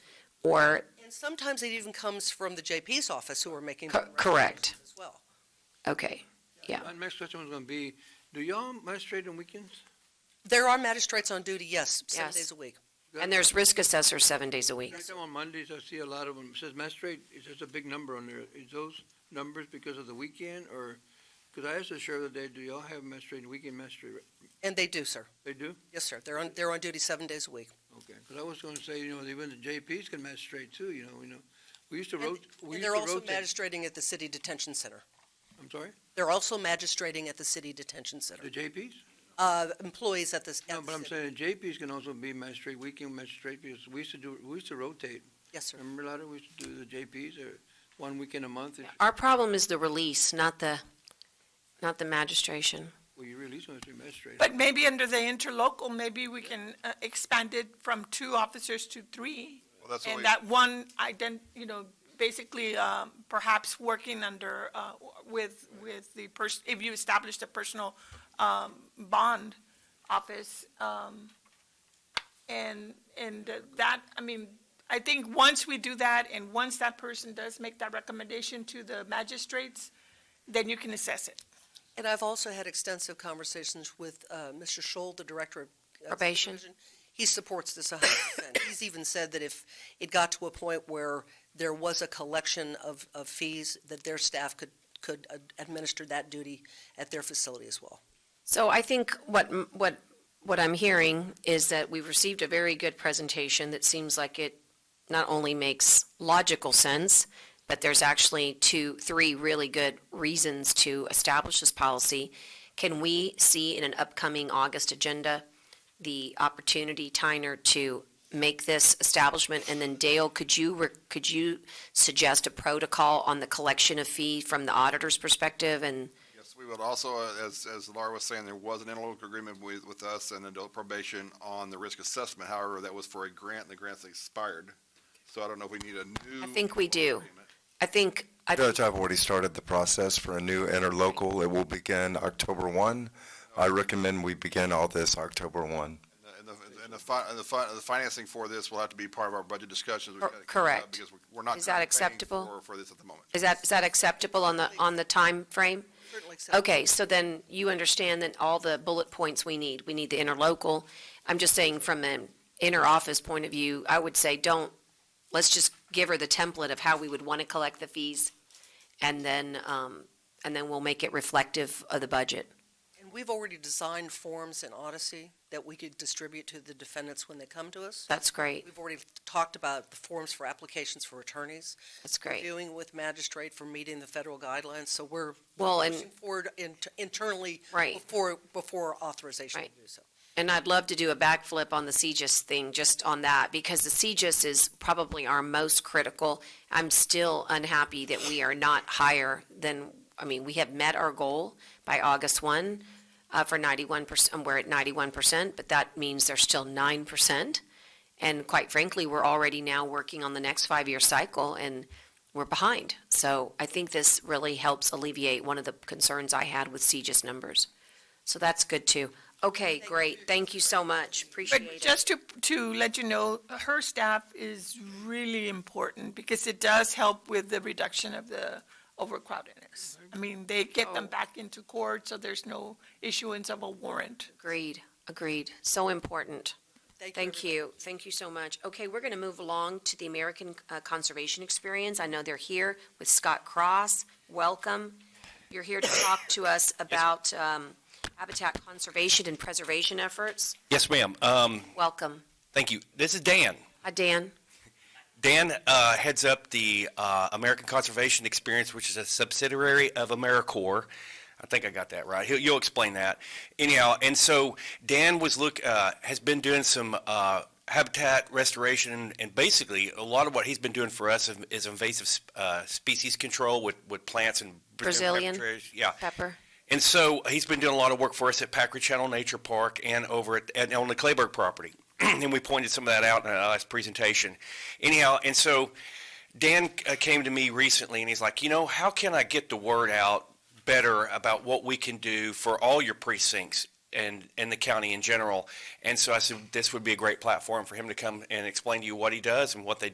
or, And sometimes it even comes from the JP's office who are making. Co- correct. recommendations As well. okay, Yeah. My next question was gonna be, do y'all magistrate on weekends? There are magistrates on duty, yes, seven Yes. days a week. and there's risk assessor seven days a week. Check them on Mondays, I see a lot of them, it says magistrate, it's just a big number on there. Is those numbers because of the weekend, or, because I asked the sheriff the other day, do y'all have magistrate, and weekend magistrate? And they do, sir. They do? Yes, sir. They're on, they're on duty seven days a week. Okay, because I was gonna say, you know, even the JPs can magistrate too, you know, we know, we used to And- rotate, And we used to they're also rotate. magistrating at the city detention center. I'm sorry, They're also magistrating at the city detention center. the JPs? Uh, employees at this, No, at but the I'm city. saying the JPs can also be magistrate, weekend magistrate, because we used to do, we used to rotate. Yes, sir. Remember, Lada, we used to do the JPs, or one weekend a month, if- Our problem is the release, not the, not the magistration. well, you release them as a magistrate. But maybe under the interlocal, maybe we can uh, expand it from two officers to three. Well, that's And only, that one ident, you know, basically um, perhaps working under, uh, with, with the person, if you establish the personal um, bond office. um, And, and uh, that, I mean, I think once we do that and once that person does make that recommendation to the magistrates, then you can assess it. And I've also had extensive conversations with uh, Mr. Scholl, the Director of. uh, Probation. Supervision. He supports this a hundred percent. He's even said that if it got to a point where there was a collection of, of fees, that their staff could, could uh, administer that duty at their facility as well. So I think what, m- what, what I'm hearing is that we've received a very good presentation that seems like it not only makes logical sense, but there's actually two, three really good reasons to establish this policy. Can we see in an upcoming August agenda the opportunity, Tyner, to make this establishment? And then Dale, could you, re- could you suggest a protocol on the collection of fee from the auditor's perspective and yes, we would also, uh, as, as Laura was saying, there was an interlocal agreement with, with us and adult probation on the risk assessment. However, that was for a grant, and the grant's expired. So I don't know if we need a new. I think we do. agreement. I think, I Judge, I've already started the process for a new interlocal. It will begin October 1. I recommend we begin all this October 1. And the, and the- and the, fi- and the, fi- the financing for this will have to be part of our budget discussions. We've Cor- got to come up correct. Because we're- we're not. Is that currently paying acceptable? For, for this at the moment. is that, is that acceptable on the, on the time frame? Certainly accept- Okay, so then you understand that all the bullet points we need, we need the interlocal. I'm just saying from an inner office point of view, I would say don't, let's just give her the template of how we would want to collect the fees. And then, um, and then we'll make it reflective of the budget. And we've already designed forms in Odyssey that we could distribute to the defendants when they come to us. That's great, We've already talked about the forms for applications for attorneys, that's great. doing with magistrate for meeting the federal guidelines, so we're Well, and, pushing forward in- internally right. before, before authorization to Right. do so. And I'd love to do a backflip on the CGIS thing, just on that, because the CGIS is probably our most critical. I'm still unhappy that we are not higher than, I mean, we have met our goal by August one, uh, for ninety-one percent, we're at ninety-one percent, but that means there's still nine percent. And quite frankly, we're already now working on the next five-year cycle, and we're behind. So I think this really helps alleviate one of the concerns I had with CGIS numbers. So that's good too. Okay, great. Thank you so much. Appreciate But it. just to, to let you know, her staff is really important because it does help with the reduction of the overcrowdedness. I mean, they get Oh. them back into court, so there's no issuance of a warrant. Agreed, agreed. So important. Thank everybody. you, thank you so much. Okay, we're going to move along to the American uh, Conservation Experience. I know they're here with Scott Cross. Welcome. You're here to talk to us about um, habitat conservation and preservation efforts. Yes, ma'am. Um, Welcome. thank you. This is Dan. Hi, Dan. Dan uh, heads up the uh, American Conservation Experience, which is a subsidiary of AmeriCorps. I think I got that right. He'll, you'll explain that. Anyhow, and so Dan was look uh, has been doing some uh, habitat restoration, and basically a lot of what he's been doing for us is invasive uh, species control with, with plants and Brazilian. peppers. Yeah, Pepper. and so he's been doing a lot of work for us at Packard Channel Nature Park and over at, and on the Clayburg property. and we pointed some of that out in our last presentation. Anyhow, and so Dan uh, came to me recently and he's like, you know, how can I get the word out better about what we can do for all your precincts and, and the county in general? And so I said, this would be a great platform for him to come and explain to you what he does and what they